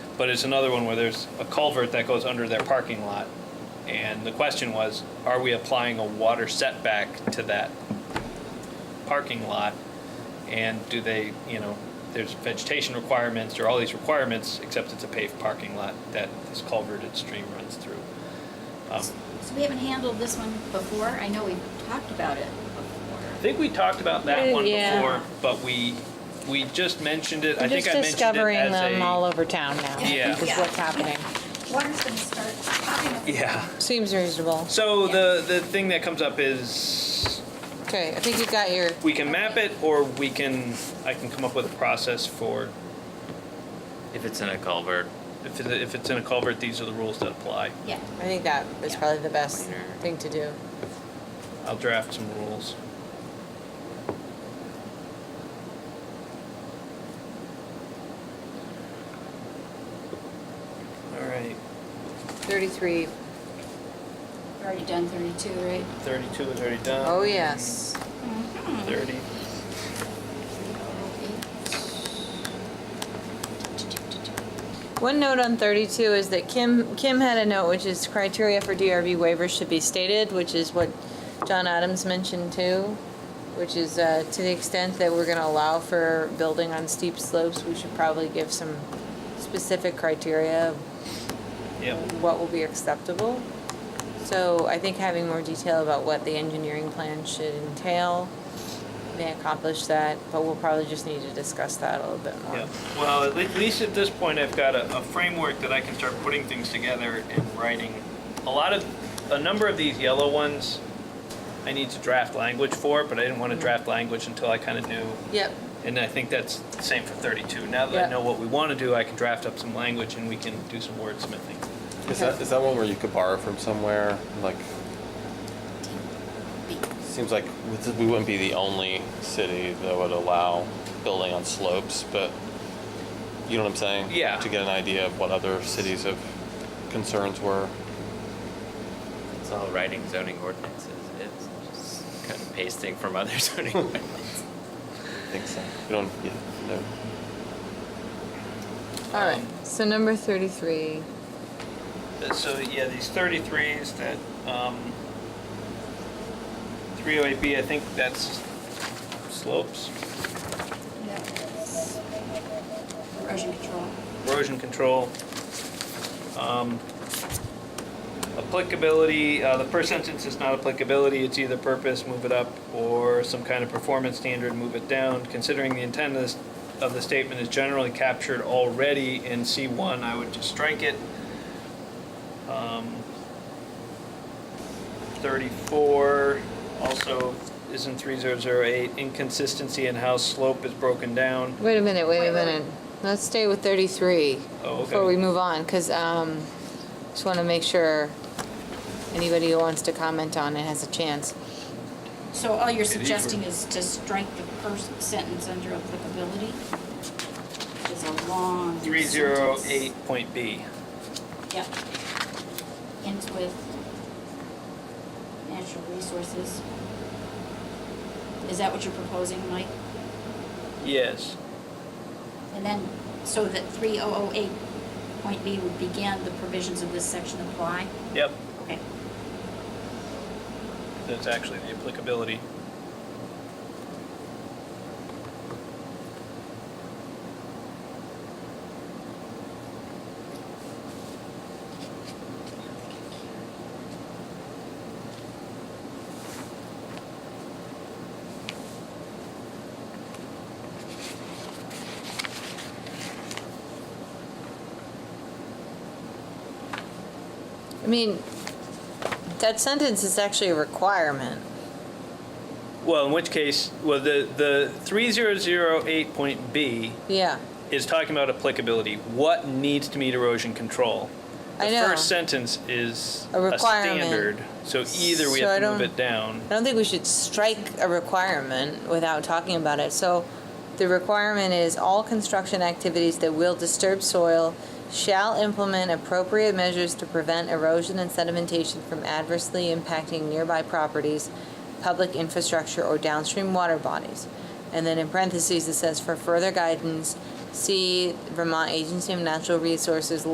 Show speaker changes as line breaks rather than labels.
but it's another one where there's a culvert that goes under their parking lot. And the question was, are we applying a water setback to that parking lot? And do they, you know, there's vegetation requirements, there are all these requirements, except it's a paved parking lot that this culverted stream runs through. Um,
So we haven't handled this one before. I know we've talked about it
I
before.
think we talked about that
Uh,
one
yeah.
before, but we, we just mentioned it, I
We're
think
just
I mentioned it as a.
discovering them all over town now.
Yeah.
Is what's happening.
Water's gonna start popping up.
Yeah.
Seems reasonable.
So the the thing that comes up is
Okay, I think you got your,
we can map it, or we can I can come up with a process for
If it's in a culvert,
if it, if it's in a culvert, these are the rules that apply.
Yeah,
I think that is
Yeah.
probably the best
Minor.
thing to do.
I'll draft some rules. All right,
Thirty-three,
we've already done thirty-two, right?
thirty-two is already done.
oh yes.
Mm-hmm.
Thirty.
One note on 32 is that Kim, Kim had a note, which is criteria for DRB waivers should be stated, which is what John Adams mentioned too, which is uh, to the extent that we're going to allow for building on steep slopes, we should probably give some specific criteria of
Yep.
what will be acceptable. So I think having more detail about what the engineering plan should entail may accomplish that, but we'll probably just need to discuss that a little bit more.
Yeah, well, at le- at least at this point, I've got a, a framework that I can start putting things together and writing. A lot of, a number of these yellow ones, I need to draft language for, but I didn't want to draft language until I kind of knew.
Yep,
And I think that's the same for 32. Now that I
Yeah.
know what we want to do, I can draft up some language and we can do some wordsmithing.
Is that is that one where you could borrow from somewhere? Like, seems like we wouldn't be the only city that would allow building on slopes, but you know what I'm saying?
Yeah.
To get an idea of what other cities of concerns were.
it's all writing zoning ordinances. It's just kind of pasting from other zoning ordinances.
I think so. You don't. Yeah. No.
all right,
Um,
so number 33.
Uh, So, yeah, these 33s that, um, 308B, I think that's slopes,
Erosion control.
erosion control. Um, Applicability, uh, the first sentence is not applicability, it's either purpose, move it up, or some kind of performance standard, move it down. Considering the intent of this- of the statement is generally captured already in C1, I would just strike it. Um, 34 also is in 3008, inconsistency in how slope is broken down.
Wait a minute, wait
Wait,
a
wait,
minute. Let's stay with 33
Oh, okay.
before we move on, because just want to make sure anybody who wants to comment on it has a chance.
So all you're suggesting is to strike the first sentence under applicability? Which is a long sentence.
308.B.
Yep. Ends with natural resources. Is that what you're proposing, Mike?
Yes.
And then, so that three oh oh eight point B would begin, the provisions of this section apply?
Yep.
Okay.
That's actually the applicability.
I mean, that sentence is actually a requirement.
Well, in which case, well, the, the 3008.B
Yeah,
is talking about applicability. What needs to meet erosion control?
I know.
The first sentence is
A requirement.
standard, so either we
So I
have to move
don't-
it down.
I don't think we should strike a requirement without talking about it. So the requirement is all construction activities that will disturb soil shall implement appropriate measures to prevent erosion and sedimentation from adversely impacting nearby properties, public infrastructure, or downstream water bodies. And then in parentheses, it says, for further guidance, See Vermont Agency of Natural Resources